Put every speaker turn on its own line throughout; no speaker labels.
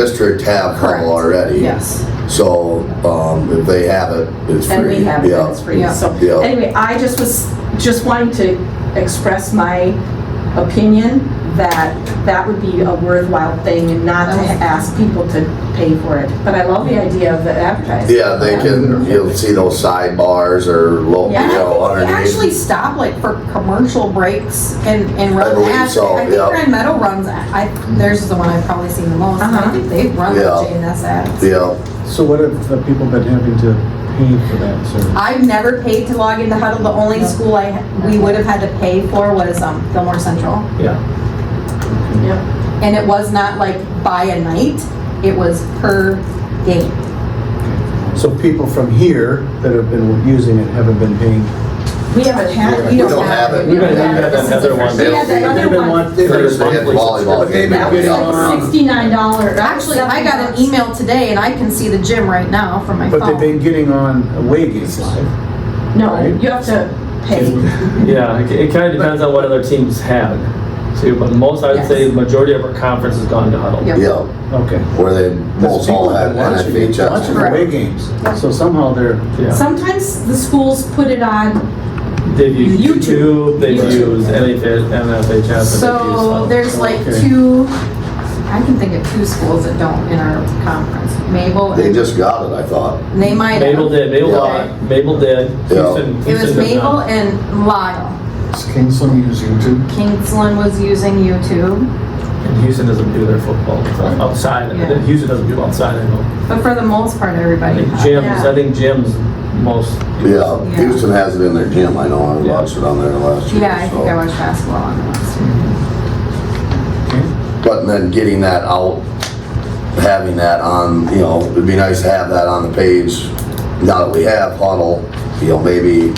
district have
Correct.
Hummel already.
Yes.
So, um, if they have it, it's free.
And we have it, it's free.
Yeah.
So,
Yeah.
anyway, I just was, just wanting to express my opinion that that would be a worthwhile thing and not to
Okay.
ask people to pay for it. But I love the idea of the advertising.
Yeah, they can, you'll see those sidebars or low, you
And I
know,
think they
underneath.
actually stop like for commercial breaks and, and run.
I believe
ads.
so,
I think
yeah.
Grand Meadow runs, I, theirs is the one I've probably seen the most. and
Uh-huh.
I think they've run the
Yeah.
JNS ads.
Yeah,
So what have the people been having to pay for that service?
I've never paid to log into Huddle. The only school I, we would have had to pay for was, um, Fillmore Central.
Yeah.
Yeah.
And it was not like by a night, it was per game.
So people from here that have been using it haven't been paying?
We haven't had,
we
you
don't
don't have
have
it.
it. We
don't have
This is the
another
first-
one.
We had that
They've
other
been
one.
want- they've been
Thursday at the
monthly
volleyball
subscription.
game.
That was
Yeah.
like sixty-nine dollars.
Actually, I got an email today and I can see the gym right now from my
But they've
phone.
been getting on away games live.
No,
right?
you have to pay.
Yeah, it- it kind of depends on what other teams have. So, but most, I would say, the majority of our conference has gone to huddle.
Yep.
yeah,
Okay.
where they most all
People
have
have been watching- Watching
NFHS.
Correct.
away games. So somehow they're,
Yeah.
Sometimes the schools put it on,
They've used
YouTube.
YouTube, they've
YouTube.
used NFH MFHS, and they've used
So
huddle.
there's like
Okay.
two, I can think of two schools that don't in our conference, Mabel
They
and
just got it, I thought.
they might. have.
Mabel did, Mabel
Yeah.
did, Mabel did.
Yeah.
Houston-
It was
Houston did
Mabel
not.
and Lyle.
Does Kingsland use YouTube?
Kingsland was using YouTube,
And Houston doesn't do their football so outside, of
Yeah.
it. Houston doesn't do outside, I know.
but for the most part,
I
everybody.
think
had.
gyms, I think gyms most.
Yeah,
Yeah.
Houston has it in their gym, I know, I
Yeah.
watched it on there last year.
Yeah, I think
so.
I watched basketball on the last year.
But then getting that out, having that on, you know, it'd be nice to have that on the page. Now that we have huddle, you know, maybe,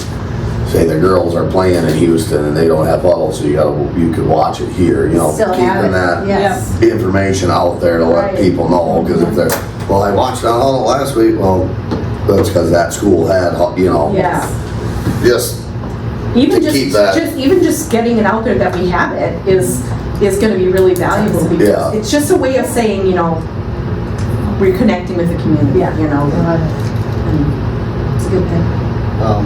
say the girls are playing in Houston and they don't have huddle, so you gotta, you could watch it here, you know.
still have it.
Keeping that
Yes.
information out there to let
Right.
people know, cause if they're, well, I watched it on huddle last week, well, that's cause that school had, hu- you know.
Yeah.
Just,
even
to
just,
keep that.
just even just getting it out there that we have it is is going to be really valuable because
Yeah.
it's just a way of saying you know reconnecting with the community you know And it's a good thing
Um,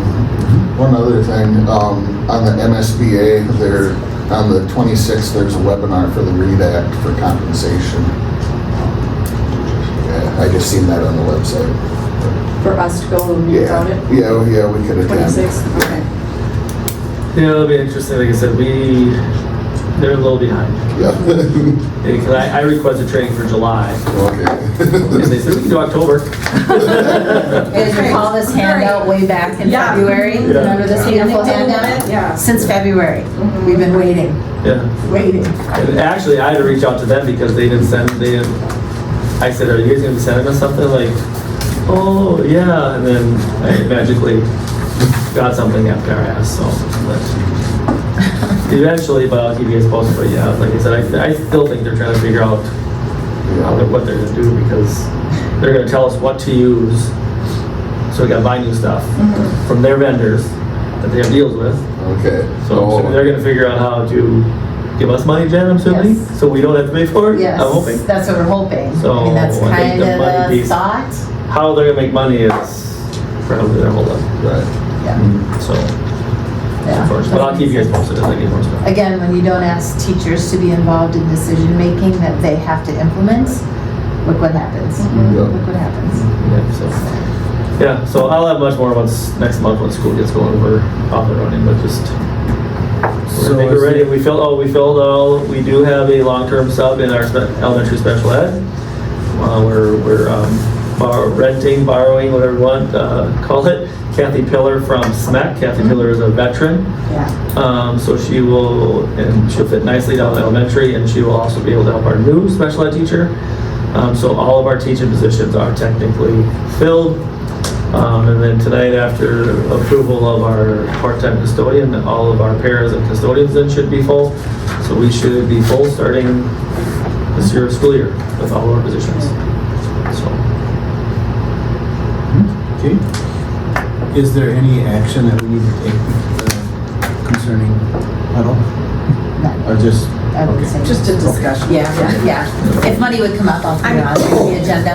One other thing, um, on the MSBA, there, on the 26th, there's a webinar for the READ Act for compensation. Yeah, I just seen that on the website.
for us to go and read
Yeah,
about it
yeah, oh, yeah, we could attend.
26 okay
Yeah, it'll be interesting, like I said, we, they're a little behind.
Yeah.
Because I, I requested training for July, and
Okay.
they said, we can do October.
Did you call this handout way back in
Yeah.
February?
Yeah.
Remember this beautiful handout?
yeah
Since February,
Mm-hmm.
we've been waiting,
Yeah.
waiting.
And actually, I had to reach out to them because they didn't send, they didn't, I said, are you guys gonna send them something? Like, oh, yeah, and then I magically got something after I asked, so. but- Eventually, but I'll keep you guys posted, but yeah, like I said, I, I still think they're trying to figure out how they're- what they're gonna do because they're gonna tell us what to use. So we gotta buy new stuff from their vendors that they have deals with.
Okay. Oh,
So I'm
Oh.
assuming they're gonna figure out how to give us money, Jen, I'm assuming,
Yes.
so we don't have to pay for it?
Yes,
I'm hoping.
that's what we're hoping.
So,
I mean, that's
I think
kind
the
of
money
the
piece-
thought.
How they're gonna make money is probably their whole up.
Right.
Yeah,
so,
yeah.
of course, Mm. but I'll keep you guys posted as I get more stuff.
Again, when you don't ask teachers to be involved in decision-making that they have to implement, look what happens.
Yeah.
Look what happens.
Yeah, so, yeah, so I'll have much more once, next month when school gets going, we're off and running, but just, I
so
think we're ready,
is
we filled, oh, we filled all, we do have a long-term sub in our spe- elementary special ed. Uh, we're, we're, um, bor- renting, borrowing, whatever you want, uh, call it. Kathy Pillar from SMAC, Kathy Pillar is a veteran.
Yeah.
Um, so she will, and she'll fit nicely down in elementary, and she will also be able to help our new special ed teacher. Um, so all of our teaching positions are technically filled. Um, and then tonight, after approval of our part-time custodian, all of our pairs and custodians then should be full. So we should be full starting this year of school year with all of our positions. So,
Okay. Is there any action that we need to take uh, concerning huddle?
not,
I just,
I would
okay.
say.
Just a discussion.
Yeah, yeah. If money would come up, I'll put it on the agenda.